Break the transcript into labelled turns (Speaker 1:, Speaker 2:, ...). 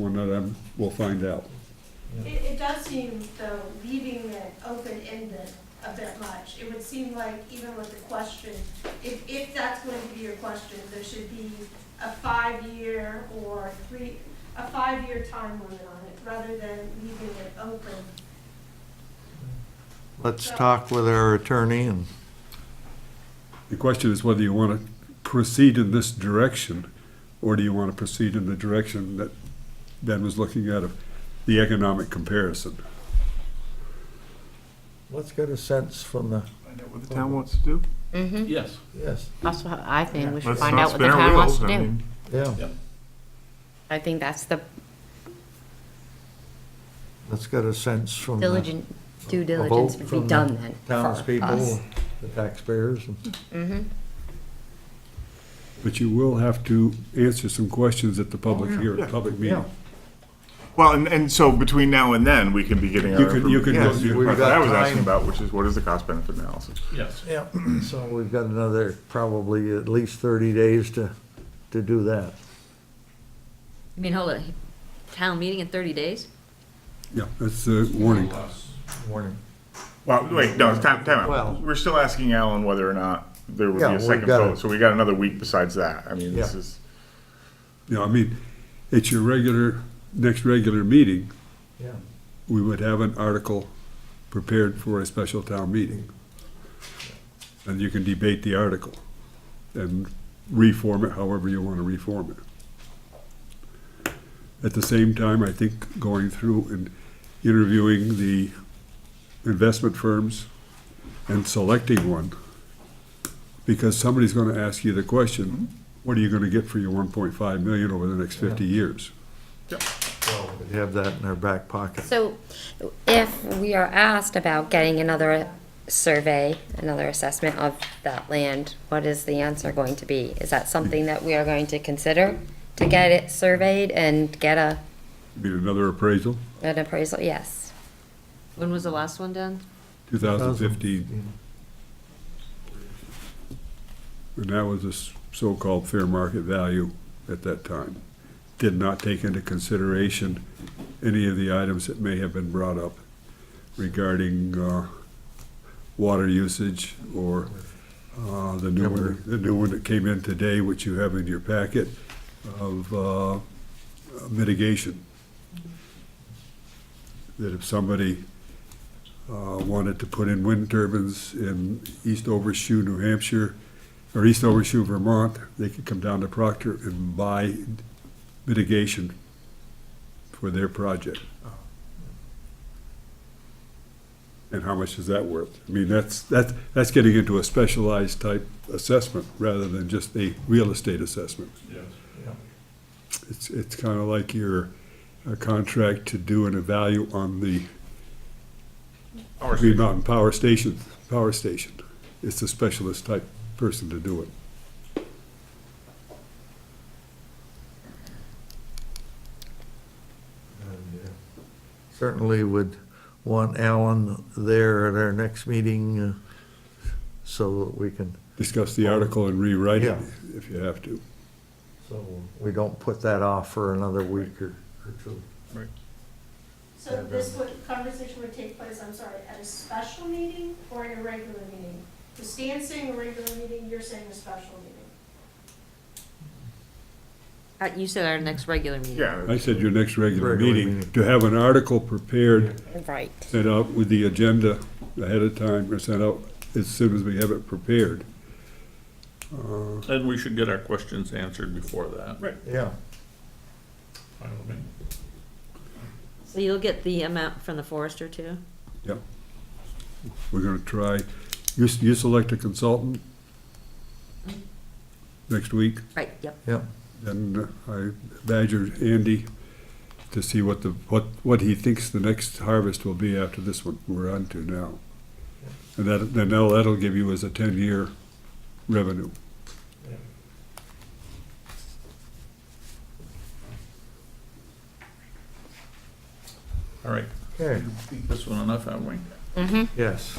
Speaker 1: One of them, we'll find out.
Speaker 2: It, it does seem, though, leaving it open-ended a bit much. It would seem like even with the question, if, if that's going to be your question, there should be a five-year or three, a five-year time limit on it, rather than leaving it open.
Speaker 3: Let's talk with our attorney and,
Speaker 1: The question is whether you want to proceed in this direction, or do you want to proceed in the direction that Ben was looking at of the economic comparison?
Speaker 3: let's get a sense from the,
Speaker 4: Find out what the town wants to do.
Speaker 5: Mm-hmm.
Speaker 6: Yes.
Speaker 3: yes,
Speaker 5: That's what I think. We should
Speaker 4: Let's
Speaker 5: find out
Speaker 4: not
Speaker 5: what the
Speaker 4: spin our
Speaker 5: town wants
Speaker 4: wheels,
Speaker 5: to
Speaker 4: I
Speaker 5: do.
Speaker 4: mean,
Speaker 3: yeah.
Speaker 5: I think that's the
Speaker 3: Let's get a sense from the
Speaker 5: diligent, due
Speaker 3: vote
Speaker 5: diligence would
Speaker 3: from
Speaker 5: be
Speaker 3: the
Speaker 5: done then.
Speaker 3: townspeople, the taxpayers. and-
Speaker 5: Mm-hmm.
Speaker 1: But you will have to answer some questions at the public hearing,
Speaker 4: Oh, Yeah.
Speaker 1: public meeting.
Speaker 4: Well, and, and so between now and then, we can be getting our.
Speaker 1: You could- you could
Speaker 4: Yes,
Speaker 1: go- you-
Speaker 4: that's what I was
Speaker 3: We've got time.
Speaker 4: asking about, which is what is the cost benefit analysis?
Speaker 6: Yes.
Speaker 3: Yeah, so we've got another, probably at least thirty days to, to do that.
Speaker 7: I mean, hold on, town meeting in thirty days?
Speaker 1: Yeah, that's a warning.
Speaker 3: Warning.
Speaker 4: Well, wait, no, it's time, time
Speaker 3: Well-
Speaker 4: out. We're still asking Alan whether or not there would be
Speaker 3: Yeah,
Speaker 4: a
Speaker 3: we've
Speaker 4: second
Speaker 3: gotta-
Speaker 4: vote, so we got another week besides that. I mean, this
Speaker 3: Yeah.
Speaker 4: is,
Speaker 1: You know, I mean, it's your regular, next regular meeting,
Speaker 3: Yeah.
Speaker 1: we would have an article prepared for a special town meeting. And you can debate the article and reform it however you want to reform it. At the same time, I think going through and interviewing the investment firms and selecting one, because somebody's going to ask you the question, what are you going to get for your 1.5 million over the next 50 years?
Speaker 3: Well, we Have that in our back pocket.
Speaker 8: So if we are asked about getting another survey, another assessment of that land, what is the answer going to be? Is that something that we are going to consider to get it surveyed and get a,
Speaker 1: Be another appraisal,
Speaker 8: an appraisal? Yes.
Speaker 7: When was the last one done?
Speaker 1: 2015. And that was a s- so-called fair market value at that time. Did not take into consideration any of the items that may have been brought up regarding uh, water usage or uh, the new one, the new one that came in today, which you have in your packet, of uh, mitigation. That if somebody uh, wanted to put in wind turbines in Eastover Shoe, New Hampshire, or Eastover Shoe, Vermont, they could come down to Proctor and buy mitigation for their project. And how much is that worth? I mean, that's, that's, that's getting into a specialized type assessment rather than just a real estate assessment.
Speaker 6: Yes.
Speaker 1: It's, it's kind of like your uh, contract to do an evalu on the
Speaker 6: Our
Speaker 1: Green
Speaker 6: station.
Speaker 1: Mountain Power Station, Power Station. It's a specialist type person to do it.
Speaker 3: And, uh, Certainly would want Alan there at our next meeting, uh, so that we can,
Speaker 1: Discuss the article and rewrite it
Speaker 3: Yeah.
Speaker 1: if you have to.
Speaker 3: so we don't put that off for another week or or two.
Speaker 2: So this would, conversation would take place, I'm sorry, at a special meeting or in a regular meeting? Is Stan's saying a regular meeting, you're saying a special meeting?
Speaker 7: Uh, you said our next regular meeting.
Speaker 4: yeah.
Speaker 1: I said your next regular
Speaker 3: Regular
Speaker 1: meeting,
Speaker 3: meeting.
Speaker 1: to have an article prepared,
Speaker 8: Right.
Speaker 1: sent out with the agenda ahead of time, or sent out as soon as we have it prepared. Uh,
Speaker 6: And we should get our questions answered before that. Right.
Speaker 3: Yeah.
Speaker 7: So you'll get the amount from the forester too?
Speaker 1: We're gonna try, you, s- you select a consultant next week.
Speaker 7: Right, yep.
Speaker 3: Yeah,
Speaker 1: And I badgered Andy to see what the, what, what he thinks the next harvest will be after this one we're on to now. And that, then that'll, that'll give you as a ten-year revenue.
Speaker 6: All right.
Speaker 3: okay,
Speaker 6: Beat this one enough, haven't we?
Speaker 3: yes.